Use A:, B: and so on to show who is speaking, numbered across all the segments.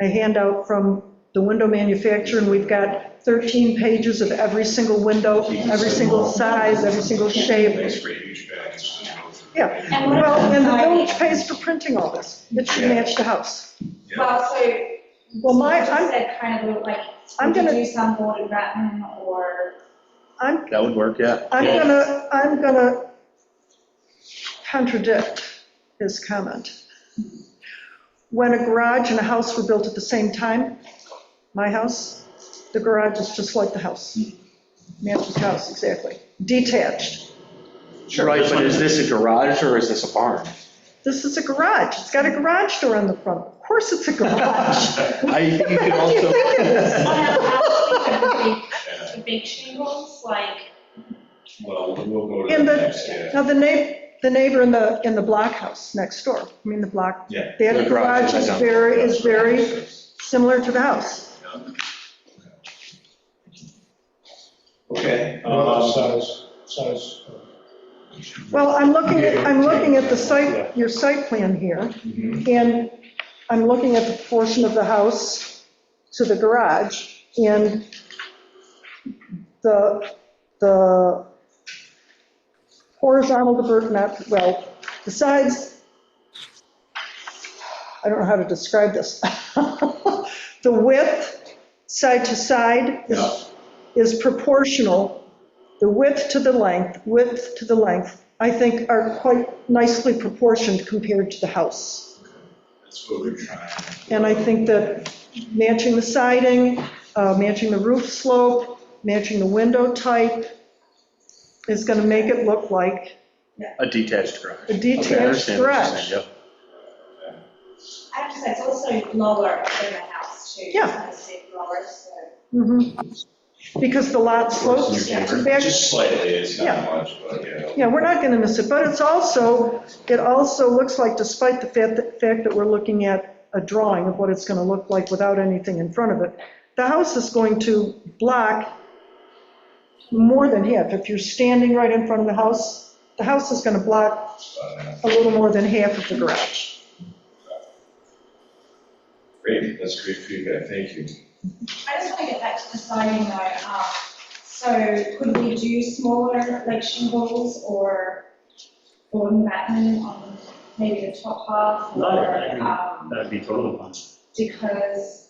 A: a handout from the window manufacturer, and we've got 13 pages of every single window, every single size, every single shape.
B: It's for huge bags. you know, for-
A: Yeah,
C: And what
A: well, and the village
C: about
A: pays for printing all this. It should match the house.
B: Yeah.
C: Well, so.
A: Well, my-
C: you just
A: I'm-
C: Said kind of like,
A: I'm
C: would you
A: gonna-
C: do some molded rattan or?
A: I'm,
D: That would work, yeah.
A: I'm gonna, I'm gonna contradict his comment. When a garage and a house were built at the same time, my house, the garage is just like the house. Matches house, exactly. Detached.
D: Right, but is this a garage or is this a barn?
A: This is a garage. It's got a garage door on the front. Of course it's a garage.
D: I, think you
A: What
D: could
A: do you
D: also,
A: think it is?
C: The big- the big shingles, like,
B: Well, we'll go to the
A: And the-
B: next, yeah.
A: Now, the neighbor, the neighbor in the, in the blockhouse next door, I mean, the block,
B: Yeah.
A: their
D: The garage
A: garage
D: is
A: is
D: down.
A: very, is very similar to the house.
B: Okay.
E: Uh,
B: um,
E: Size, size.
A: Well, I'm looking, at I'm looking at the site, your site plan here,
B: mhm.
A: and I'm looking at the portion of the house to the garage, and the, the horizontal divert, not, well, the sides, I don't know how to describe this. The width, side to side,
B: Yeah.
A: is is proportional, the width to the length, width to the length, I think are quite nicely proportioned compared to the house.
B: That's what we're trying.
A: And I think that matching the siding, uh, matching the roof slope, matching the window type is going to make it look like
D: a detached garage.
A: a
D: Okay, I
A: detached
D: understand what you're saying,
A: garage.
D: yep.
C: I have to say, it's also lower than the house too.
A: Yeah.
C: It's kind of steep lower, so.
A: Mhm. Because the lot slopes back.
B: Just slightly, it's
A: Yeah.
B: not much, but yeah.
A: Yeah, we're not going to miss it, but it's also, it also looks like despite the fact that, fact that we're looking at a drawing of what it's going to look like without anything in front of it, the house is going to block more than half. If you're standing right in front of the house, the house is going to block
B: Uh,
A: a little more than half of the garage.
B: Great, that's great feedback, thank you.
C: I just want to get back to the siding though. um, So could we do smaller, like shingles or wooden batten on maybe the top half?
F: No, I
C: Or,
F: mean-
C: um,
F: That'd be totally fine.
C: because.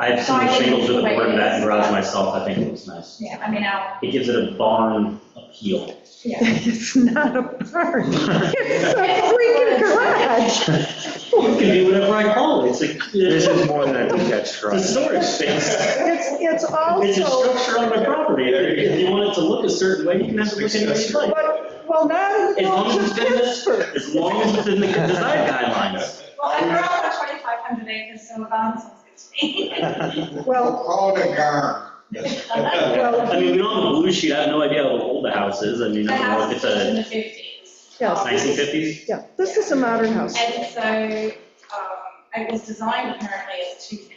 F: I have some
C: Siding
F: shingles with a
C: is
F: board mat and garage
C: like-
F: myself, I think it looks nice.
C: Yeah, I mean, our,
F: It gives it a barn appeal.
C: yeah.
A: It's not a barn, it's a freaking garage.
F: It can be whatever I call it, it's a,
D: This
F: it's
D: is more than a detached
F: a
D: garage.
F: storage space.
A: It's, it's
F: It's a
A: also,
F: structure on my property, if you want it to look a certain way, you can have it look any way you like.
A: but, well, not in
F: As
A: the
F: long
A: village of
F: as it's in
A: Pittsburgh.
F: the, as long as it's in the design guidelines.
C: Well, I grew up on 2,500 acres, so a barn sounds good to me.
A: Well,
E: Call it a garn.
F: I mean, we don't have a blue sheet, I have no idea how old the house is, I mean,
C: The
F: I don't know
C: house
F: if it's
C: was in the
F: a
C: 50s.
A: Yes.
F: nineteen fifties.
A: yeah, this is a modern house.
C: And so um, it was designed apparently as two family.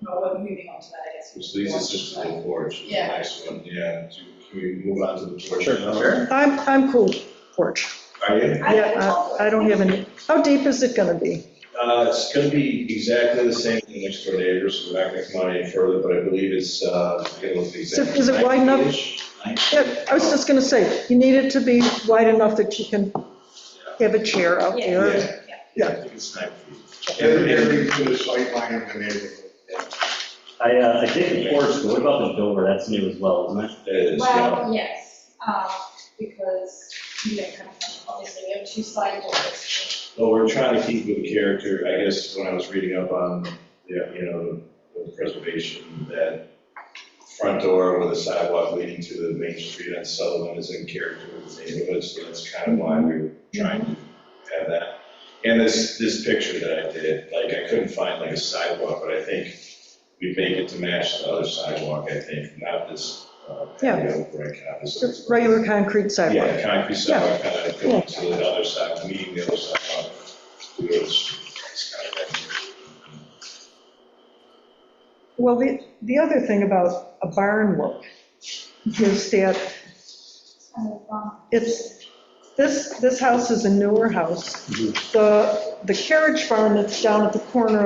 C: Well, we're moving on to that, I guess.
B: Which leads us just to the porch, which is the
C: Yeah.
B: next one, yeah. Do- Can we move on to the porch?
D: Sure,
B: now?
D: sure.
A: I'm, I'm cool with porch.
B: Are you?
A: Yeah, I I don't have any, how deep is it gonna be?
B: Uh, It's going to be exactly the same as the next door neighbors, so we're not going to come out any further, but I believe it's, uh, it was exactly.
A: is it wide enough?
B: 90-ish,
A: Yeah, I was just gonna say, you need it to be wide enough that you can have a chair out there.
B: Yeah,
C: Yeah.
B: yeah, I think it's nine feet.
E: Everything to the sight line of the neighborhood.
F: I, uh, I did the porch, but what about the door, that's new as well, isn't it?
B: It is, yeah.
C: Well, yes, um, because, you know, kind of, obviously we have two side doors.
B: Well, we're trying to keep with character, I guess, when I was reading up on, the, you know, the preservation, that front door with a sidewalk leading to the main street on Sutherland is in character with the neighborhood, so that's kind of why we were trying to have that. And this, this picture that I did, like, I couldn't find like a sidewalk, but I think we make it to match the other sidewalk, I think, not this, uh,
A: Yeah.
B: patio brick, obviously.
A: Just Regular concrete sidewalk.
B: Yeah, concrete sidewalk, kind of going to the other side, meeting the other side. on the roads. It's kind of like-
A: Well, the, the other thing about a barn look is that
C: It's kind of, um,
A: it's,
B: Mm-hmm.
A: this, this house is a newer house. The, the carriage barn that's down at the corner